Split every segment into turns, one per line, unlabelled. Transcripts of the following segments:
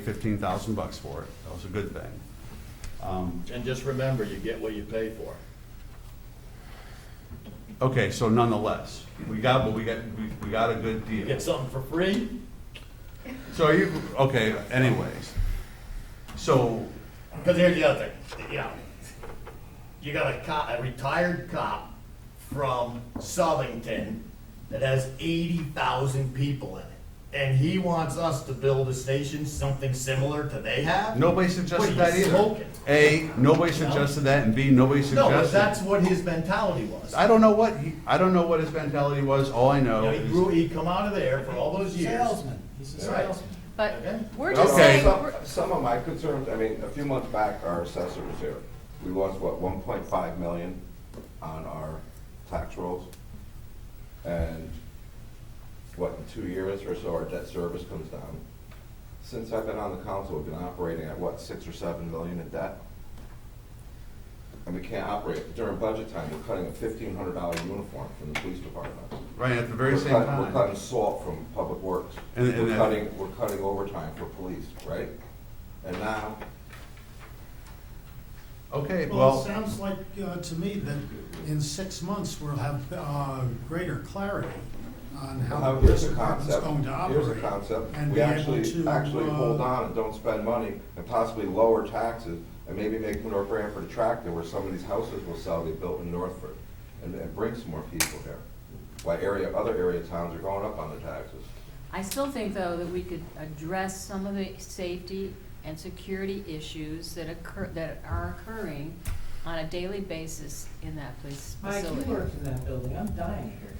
fifteen thousand bucks for it. That was a good thing. Um,
And just remember, you get what you pay for.
Okay, so nonetheless, we got, but we got, we- we got a good
You
deal.
get something for free,
So are you, okay, anyways. So,
because here's the other thing, you know, you got a cop, a retired cop from Southington that has eighty thousand people in it, and he wants us to build a station, something similar to they have?
nobody suggested
What are
that
you
either.
smoking?
A, nobody suggested that, and B, nobody
No, but that's
suggested.
what his mentality was.
I don't know what, he- I don't know what his mentality was, all I
You
know
know, he
is,
grew, he come out of there for all those years.
He's
a salesman.
But
Okay.
we're
Okay.
just saying,
Some,
we're-
some of my concerns, I mean, a few months back, our assessor was here. We lost, what, one point five million on our tax rolls? And what, in two years or so, our debt service comes down. Since I've been on the council, we've been operating at, what, six or seven million in debt? And we can't operate. During budget time, we're cutting a fifteen hundred dollar uniform from the police department.
right, at the very
We're
same
cutting- We're
time.
cutting salt from public works.
And- and
We're
that-
cutting, we're cutting overtime for police, right? And now,
Okay,
Well, it
well,
sounds like, uh, to me, that in six months, we'll have, uh, greater clarity on how
now
the
here's a
department's
concept,
going to operate.
here's a concept.
and
We
be able
actually,
to,
actually
uh,
hold on and don't spend money and possibly lower taxes and maybe make North Branford attractive where some of these houses will sell they built in Northford and, and bring some more people here. Why area, other area towns are going up on their taxes.
I still think, though, that we could address some of the safety and security issues that occur, that are occurring on a daily basis in that police
Mike, you
facility.
worked in that building, I'm dying here.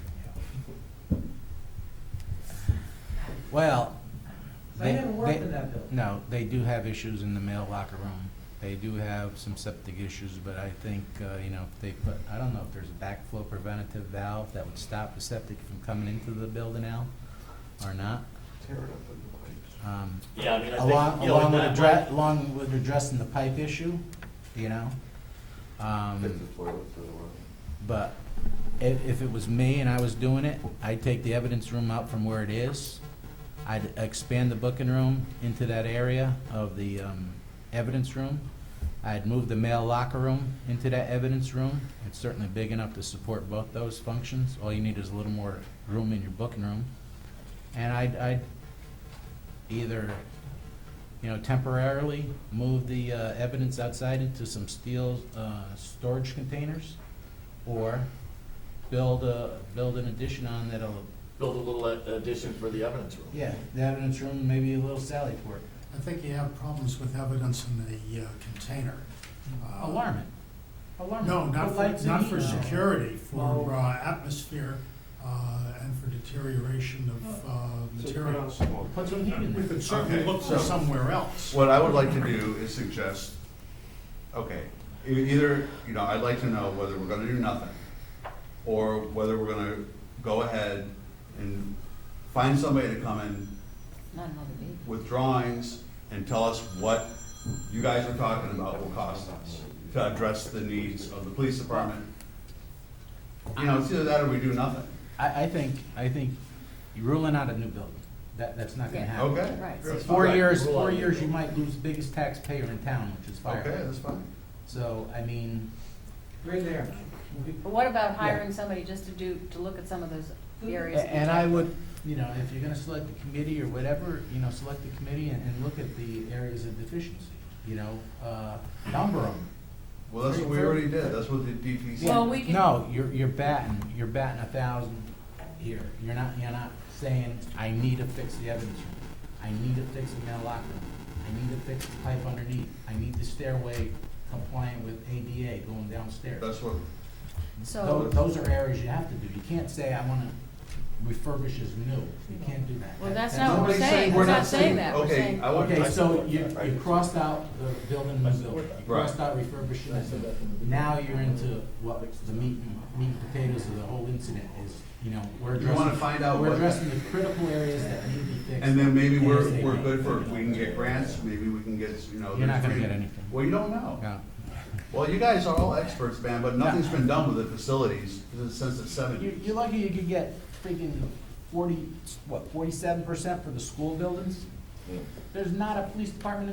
Well.
I
they-
never worked
they-
in that building.
No, they do have issues in the male locker room. They do have some septic issues, but I think, uh, you know, if they put, I don't know if there's a backflow preventative valve that would stop the septic from coming into the building now or not.
Tear it up in the pipes.
Um,
Yeah, I mean, I think,
Along,
you know,
along with
that
address,
might-
along with addressing the pipe issue, you know?
Fix
Um,
the toilets or whatever.
but if, if it was me and I was doing it, I'd take the evidence room out from where it is. I'd expand the booking room into that area of the, um, evidence room. I'd move the mail locker room into that evidence room. It's certainly big enough to support both those functions. All you need is a little more room in your booking room. And I'd, I'd either, you know, temporarily move the, uh, evidence outside into some steel, uh, storage containers or build a, build an addition on that'll,
Build a little uh, addition for the evidence room.
yeah, the evidence room, maybe a little sally port.
I think you have problems with evidence in the, uh, container. Uh,
Uh-huh.
Alarm it. Alarm it.
No, not
Put
for,
lights
not
in
for
each-
security, for,
Well-
uh, atmosphere, uh, and for deterioration of, uh,
So put on
materials.
smoke.
Put some heat in
We
there.
could certainly
Okay.
look for somewhere else.
what I would like to do is suggest, okay, e- either, you know, I'd like to know whether we're gonna do nothing, or whether we're gonna go ahead and find somebody to come in
Not another meeting.
with drawings and tell us what you guys are talking about will cost us to address the needs of the police department. You know, it's either that or we do nothing.
I, I think, I think you're ruling out a new building. That, that's not gonna
Yeah.
happen.
Okay?
Right.
That's
Four
fine.
years,
Rule out
four
a new
years, you
building.
might lose the biggest taxpayer in town, which is
Okay,
fire.
that's fine.
So, I mean,
We're there. We-
But what about hiring somebody just to do, to look at some of those
a-
areas? that we
and I
talked
would, you know, if you're gonna select a committee or whatever, you know, select a committee and, and look at the areas of deficiency, you know, uh, number them.
Well, that's what we already did. That's what the DPC. did.
Well, we can-
No, you're, you're batting, you're batting a thousand here. You're not, you're not saying, I need to fix the evidence room. I need to fix the male locker room. I need to fix the pipe underneath. I need the stairway compliant with ADA going downstairs.
That's what,
So,
Tho- Those are areas you have to do. You can't say, I wanna refurbish as new. You can't do that.
well,
That-
that's not what we're
Nobody's saying
saying,
we're
we're
not
not saying
saying-
that, we're
okay,
saying,
I would-
Okay, so you, you crossed out the building, new building. You crossed out refurbishing. as new. Now you're into what the meat and, meat and potatoes of the whole incident is, you know, we're
You
addressing.
wanna find out
We're
what-
addressing the critical areas that need to be fixed.
and then maybe we're,
ASAP.
we're good for, we can get grants, maybe we can get, you know.
You're not gonna
there's-
get anything.
Well, you don't know.
Yeah.
Well, you guys are all experts, man, but nothing's been done with the facilities since the
You're,
seventies.
you're lucky you could get freaking forty, what, forty-seven percent for the school buildings? There's not a police department